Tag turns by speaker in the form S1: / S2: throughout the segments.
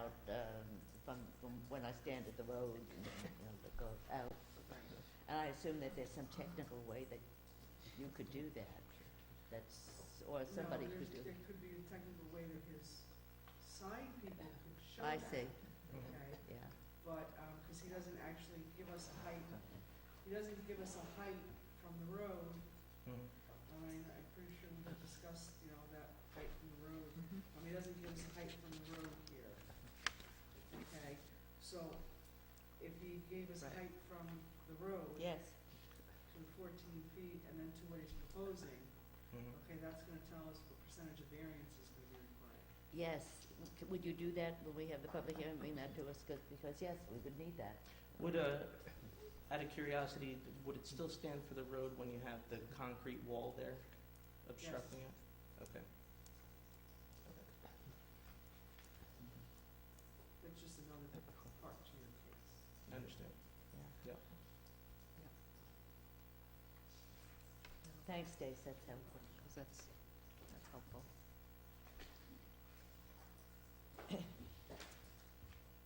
S1: um, I stand at the road and, you know, that goes out. And I assume that there's some technical way that you could do that, that's, or somebody
S2: No,
S1: could
S2: there's-
S1: do.
S2: there could be a technical way that his sign people could show
S1: I
S2: that.
S1: see,
S2: Okay,
S1: yeah,
S2: but, um 'cause cause he doesn't actually give us a height, he doesn't give us a height from the road.
S3: Mhm.
S2: I mean, I'm pretty sure we discussed, you know, that height from the road. I mean, it doesn't give us height from the road here. Okay, so if he gave us
S1: Right.
S2: height from the road
S1: yes,
S2: to fourteen feet and then to what he's proposing,
S3: Mhm.
S2: okay, that's gonna tell us what percentage of variance is gonna be required.
S1: yes. C- Would you do that when we have the public hearing, bring that to us, 'cause- because, yes, we would need that.
S3: Would, uh, out of curiosity, would it still stand for the road when you have the concrete wall there obstructing it? Okay.
S2: That's just another part to your case.
S3: I understand.
S1: Yeah.
S3: Yeah.
S1: Yeah. Thanks, Stace, that's helpful, 'cause that's, that's helpful.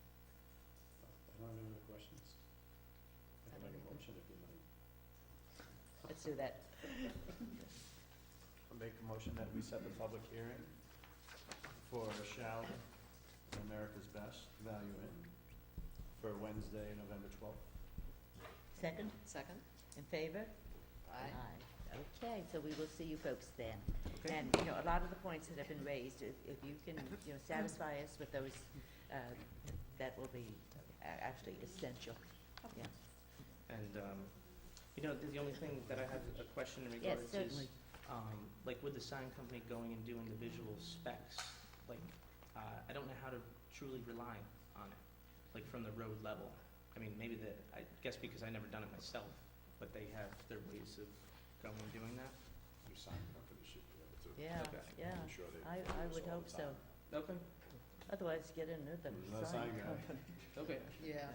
S4: I don't have any other questions. I can make a motion if you'd like.
S1: Let's do that.
S4: I'll make a motion that we set the public hearing for Shell America's Best Value Inn for Wednesday, November twelfth.
S1: Second,
S2: Second?
S1: in favor?
S2: Aye.
S1: Okay, so we will see you folks then.
S3: Okay.
S1: And, you know, a lot of the points that have been raised, if, if you can, you know, satisfy us with those, uh, that will be a- actually essential. Yeah.
S3: And, um, you know, the- the only thing that I have a question in
S1: Yes,
S3: regards
S1: certainly.
S3: is, um, like with the sign company going and doing the visual specs, like, uh, I don't know how to truly rely on it, like from the road level. I mean, maybe the, I guess because I never done it myself, but they have their ways of going and doing that.
S4: Your sign company should be able to.
S1: Yeah,
S3: Okay.
S1: yeah.
S4: sure they
S1: I, I would hope so.
S3: Okay,
S1: Otherwise, get another
S4: Another
S1: sign
S4: sign guy.
S1: company.
S3: okay.
S2: Yeah.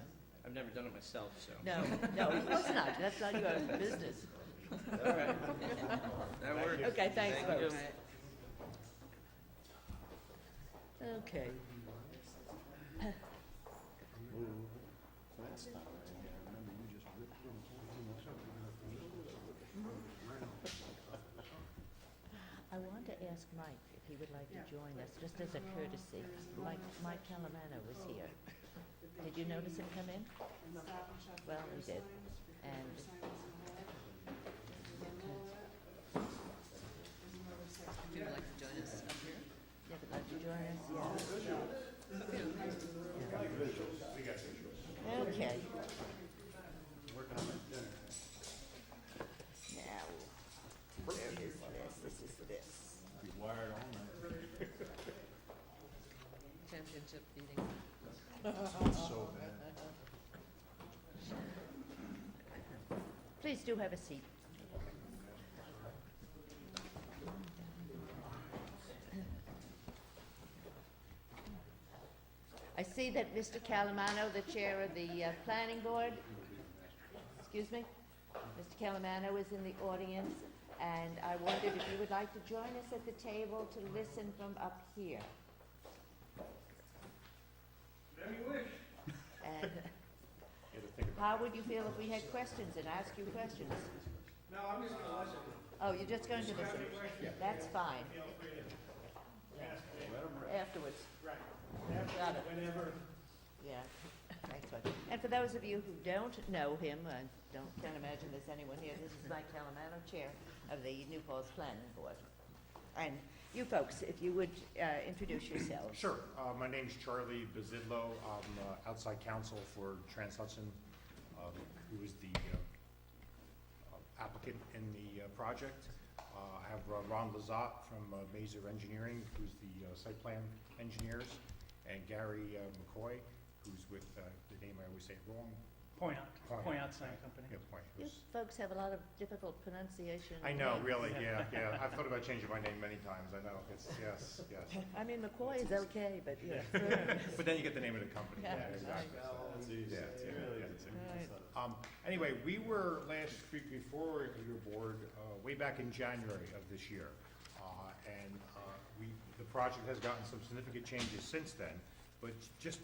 S3: I've never done it myself, so.
S1: No, no, of course not. That's not your business.
S3: All right. That works.
S1: Okay, thanks,
S3: Thank you.
S1: folks. Okay.
S4: Last time, I remember you just ripped it
S1: I want to ask Mike if he would like
S2: Yeah.
S1: to join us, just as a courtesy.
S2: There is no
S1: Mike,
S2: other
S1: Mike
S2: section
S1: Calamano was
S2: of the
S1: here.
S2: that they
S1: Did you notice him
S2: change
S1: come in?
S2: and Stop and Shop
S1: Well,
S2: their
S1: we did.
S2: signs because
S1: And-
S2: their sign wasn't allowed. Remember all that? There's another section.
S5: Would you like to join us up here?
S1: Yeah, would like to join us? Yeah. Okay.
S4: Working on my dinner.
S1: Now, where is this? This is this.
S4: Be wired all night.
S5: Championship meeting.
S4: It's so bad.
S1: Please do have a seat. I see that Mr. Calamano, the chair of the uh, planning board, excuse me, Mr. Calamano is in the audience, and I wondered if you would like to join us at the table to listen from up here. Whatever you wish.
S4: You had to think about
S1: How would you feel if we had questions and asked you questions? No, I'm just gonna listen. Oh, you're just going to listen? That's fine.
S4: it. Let 'em rip.
S1: Afterwards. Right. Got it. Whenever. Yeah, thanks, bud. And for those of you who don't know him, I don't, can't imagine there's anyone here, this is Mike Calamano, Chair of the New Paltz Planning Board. And you folks, if you would, uh, introduce yourselves.
S6: Sure. Uh, My name's Charlie Bazidlo. I'm uh, outside counsel for Trans Hudson, um, who is the uh, applicant in the uh, project. Uh, I have uh, Ron Lazat from uh, Mazer Engineering, who's the uh, site plan engineers, and Gary uh, McCoy, who's with, uh, the name I always say wrong.
S7: Point out,
S6: Point
S7: point
S6: out.
S7: out sign company.
S6: Yeah, Point.
S1: You folks have a lot of difficult pronunciation.
S6: I know,
S1: names.
S6: really, yeah, yeah. I've thought about changing my name many times. I know. It's, yes, yes.
S1: I mean, McCoy is okay, but, yeah.
S6: But then you get the name of the company.
S1: Yeah.
S6: Yeah, exactly. So
S4: That's easy.
S6: Yeah, yeah, yeah,
S4: It's
S6: it's
S4: easy.
S1: Right.
S6: Um, anyway, we were last week before your board, uh, way back in January of this year. Uh, and, uh, we, the project has gotten some significant changes since then, but just